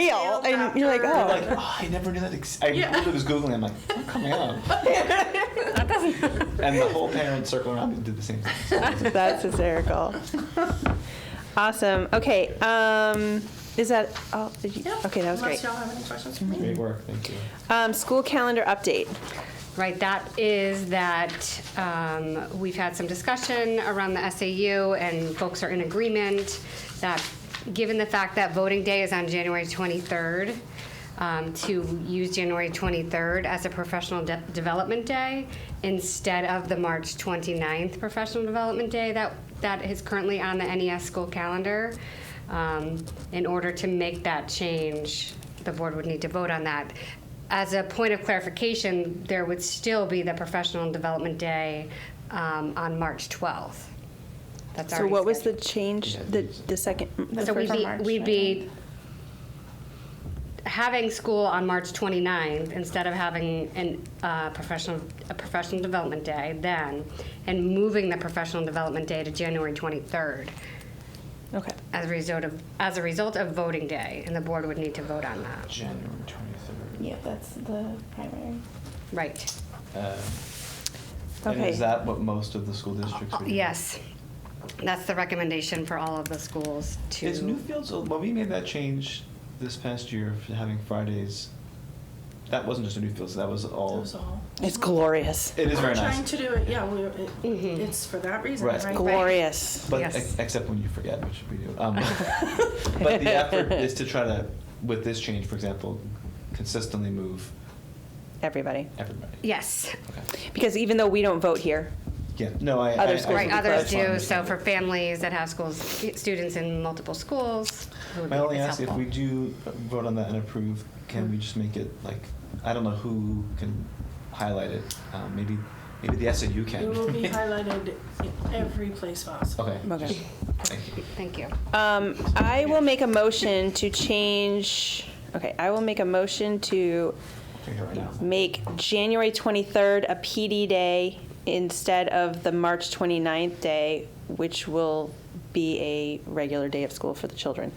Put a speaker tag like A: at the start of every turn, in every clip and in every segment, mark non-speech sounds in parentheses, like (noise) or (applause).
A: real, and you're like, (laughs)
B: I'm like,
A: oh,
B: oh, I never knew that. Ex- I
C: Yeah.
B: literally was Googling. I'm like, what coming up?
D: That
B: (laughs)
D: doesn't.
B: And the whole parent circle around me did the same thing.
A: oh, that's hysterical. awesome. Okay. Um, is that all? Did you,
C: Yeah.
A: Okay, that was
C: Unless
A: great.
C: y'all have any questions for me.
B: Great work. Thank you.
A: Um, school calendar update.
D: Right, that is that um, we've had some discussion around the SAU, and folks are in agreement that, given the fact that voting day is on January 23rd, um, to use January 23rd as a professional de- development day instead of the March 29th professional development day that, that is currently on the NES school calendar. Um, In order to make that change, the board would need to vote on that. As a point of clarification, there would still be the professional development day um, on March 12th. That's
A: So
D: already
A: what was the
D: scheduled.
A: change? The the second. The
D: So we'd
A: first-
D: be, we'd be having school on March 29th instead of having an, uh, professional, a professional development day then, and moving the professional development day to January 23rd
A: Okay.
D: as a result of, as a result of voting day, and the board would need to vote on that.
B: January 23rd.
E: Yeah, that's the primary.
D: Right,
B: Uh, And
A: Okay.
B: is that what most of the school districts would do?
D: Uh, yes. That's the recommendation for all of the schools to.
B: Is Newfields, when we made that change this past year for having Fridays, that wasn't just a Newfields, that was all.
C: Those all.
A: It's glorious.
B: It is
C: We're
B: very
C: Trying
B: nice.
C: to do it, yeah, we're, it-
A: Mm-hmm.
D: Mhm.
C: it's for that reason,
B: Right.
C: right?
A: Glorious.
B: But
D: Yes.
B: ex- except when you forget, which we do. Um, (laughs) but the effort is to try to, with this change, for example, consistently move
A: Everybody.
B: everybody.
D: Yes.
B: Okay.
A: Because even though we don't vote here,
B: Yeah. No, I.
A: Other
B: I- I-
A: schools
D: Right,
A: would
D: others
B: that's fine,
D: do, so
B: understand.
D: for families that have schools, students in multiple schools. it would
B: My
D: be
B: only ask, if
D: helpful.
B: we do vote on that and approve, can we just make it like, I don't know who can highlight it, um, maybe, maybe the SAU
C: It
A: (laughs)
C: will
B: (laughs)
C: be
B: can.
C: highlighted in every place possible.
B: Okay.
A: Okay.
B: just- Thank you.
D: Thank you.
A: um, I will make a motion to change. Okay, I will make a motion to
B: You're here right now.
A: make January 23rd a PD day instead of the March 29th day, which will be a regular day of school for the children.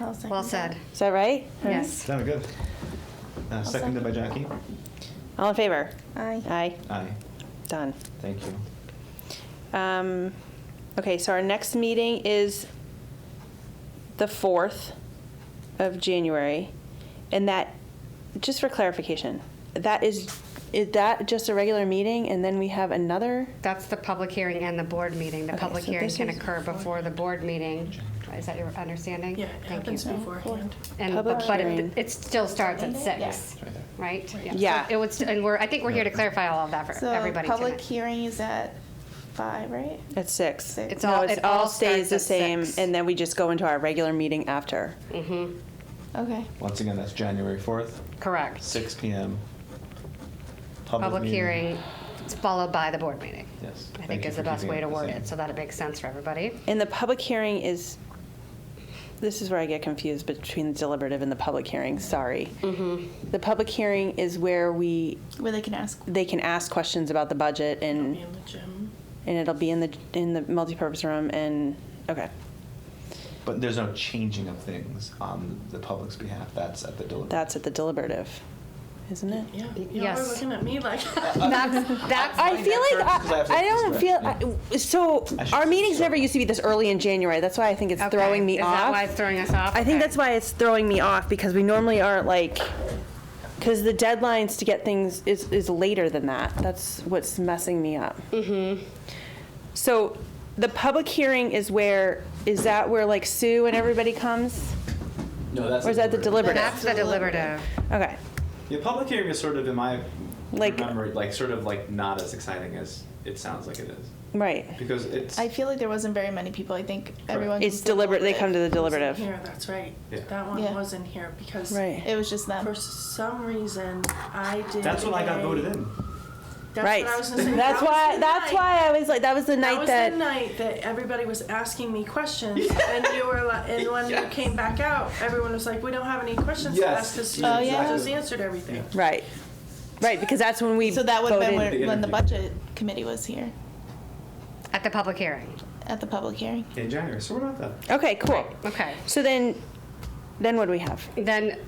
E: I'll second
D: Well
E: that.
D: said.
A: Is that right?
D: Yes.
B: Sounded good. Uh, seconded by Jackie?
A: All in favor?
E: Aye.
A: Aye.
B: Aye.
A: Done.
B: Thank you.
A: Um, okay, so our next meeting is the 4th of January. And that, just for clarification, that is, is that just a regular meeting and then we have another?
D: That's the public hearing and the board meeting. The
A: Okay,
D: public
A: so
D: hearing
A: this
D: can
A: is-
D: occur before the board meeting. Is that your understanding?
C: Yeah, it
D: Thank you.
C: happens beforehand.
D: And,
A: Public
D: but but
A: hearing.
D: it, it still starts at
E: Yeah.
D: six,
B: It's right there.
D: right?
A: Yeah.
D: So It was, and we're, I think we're here to clarify all of that for
E: So
D: everybody
E: public
D: tonight.
E: hearing is at five, right?
A: At six.
E: Six. It's
A: No,
D: all-
A: it's
D: it
A: all
D: all
A: stays
D: starts
A: the
D: at
A: same,
D: six.
A: and then we just go into our regular meeting after.
D: Mhm.
E: Okay.
B: Once again, that's January fourth,
D: Correct.
B: six P M.
D: Public
B: meeting.
D: hearing followed by the board meeting.
B: Yes.
D: I
B: Thank
D: think
B: you
D: is
B: for
D: the best
B: keeping
D: way
B: it
D: to
B: the
D: word
B: same.
D: it, so that it makes sense for everybody.
A: And the public hearing is, this is where I get confused between deliberative and the public hearing, sorry.
D: Mm-hmm.
A: The public hearing is where we,
E: Where they can ask.
A: they can ask questions about the budget and,
C: Be in the gym.
A: and it'll be in the, in the multipurpose room and, okay.
B: But there's no changing of things on the public's behalf, that's at the deliberative.
A: That's at the deliberative, isn't it?
C: Yeah, y'all were
D: Yes.
C: looking at me like,
D: That's, that's.
A: I feel like,
B: first, 'cause I
A: I,
B: have to
A: I
B: look
A: don't
B: this
A: feel,
B: way.
A: I- so,
B: I should
A: our meetings
B: start.
A: never used to be this early in January, that's why I think it's
D: Okay.
A: throwing me
D: Is
A: off.
D: that why it's throwing us off?
A: I
D: Okay.
A: think that's why it's throwing me off because we normally aren't like, because the deadlines to get things is, is later than that. That's what's messing me up. Mm-hmm. So the public hearing is where, is that where like Sue and everybody comes?
B: No, that's.
A: Or is that the deliberative?
D: That's the deliberative.
A: Okay.
B: Yeah, public hearing is sort of, in my
A: Like-
B: memory, like, sort of like not as exciting as it sounds like it is.
A: Right.
B: Because it's,
E: I feel like there wasn't very many people. I think everyone.
A: It's deliberate, they come to the (laughs) deliberative.
C: here, that's right.
B: Yeah.
C: That one
E: Yeah.
C: wasn't here because
A: Right.
E: It was just them.
C: for some reason, I did.
B: that's when I got
C: a-
B: voted in.
C: That's
A: Right.
C: what I was gonna say.
A: That's
C: That was
A: why,
C: the
A: that's
C: night-
A: why I was like, that was the
C: That
A: night
C: was the
A: that,
C: night that everybody was asking me
B: (laughs)
C: questions, and you were like, and when you came back out, everyone was like, "We don't have any questions to
B: Yes.
C: ask because
B: Oh,
E: yeah.
C: just answered everything."
A: right. Right, because that's when we
E: so that would have been
A: voted.
E: when, when the
B: interview.
E: budget committee was here
D: At the public hearing.
E: at the public hearing.
B: In January, so we're not that
A: Okay, cool.
D: Okay.
A: So then, then what do we have?
D: Then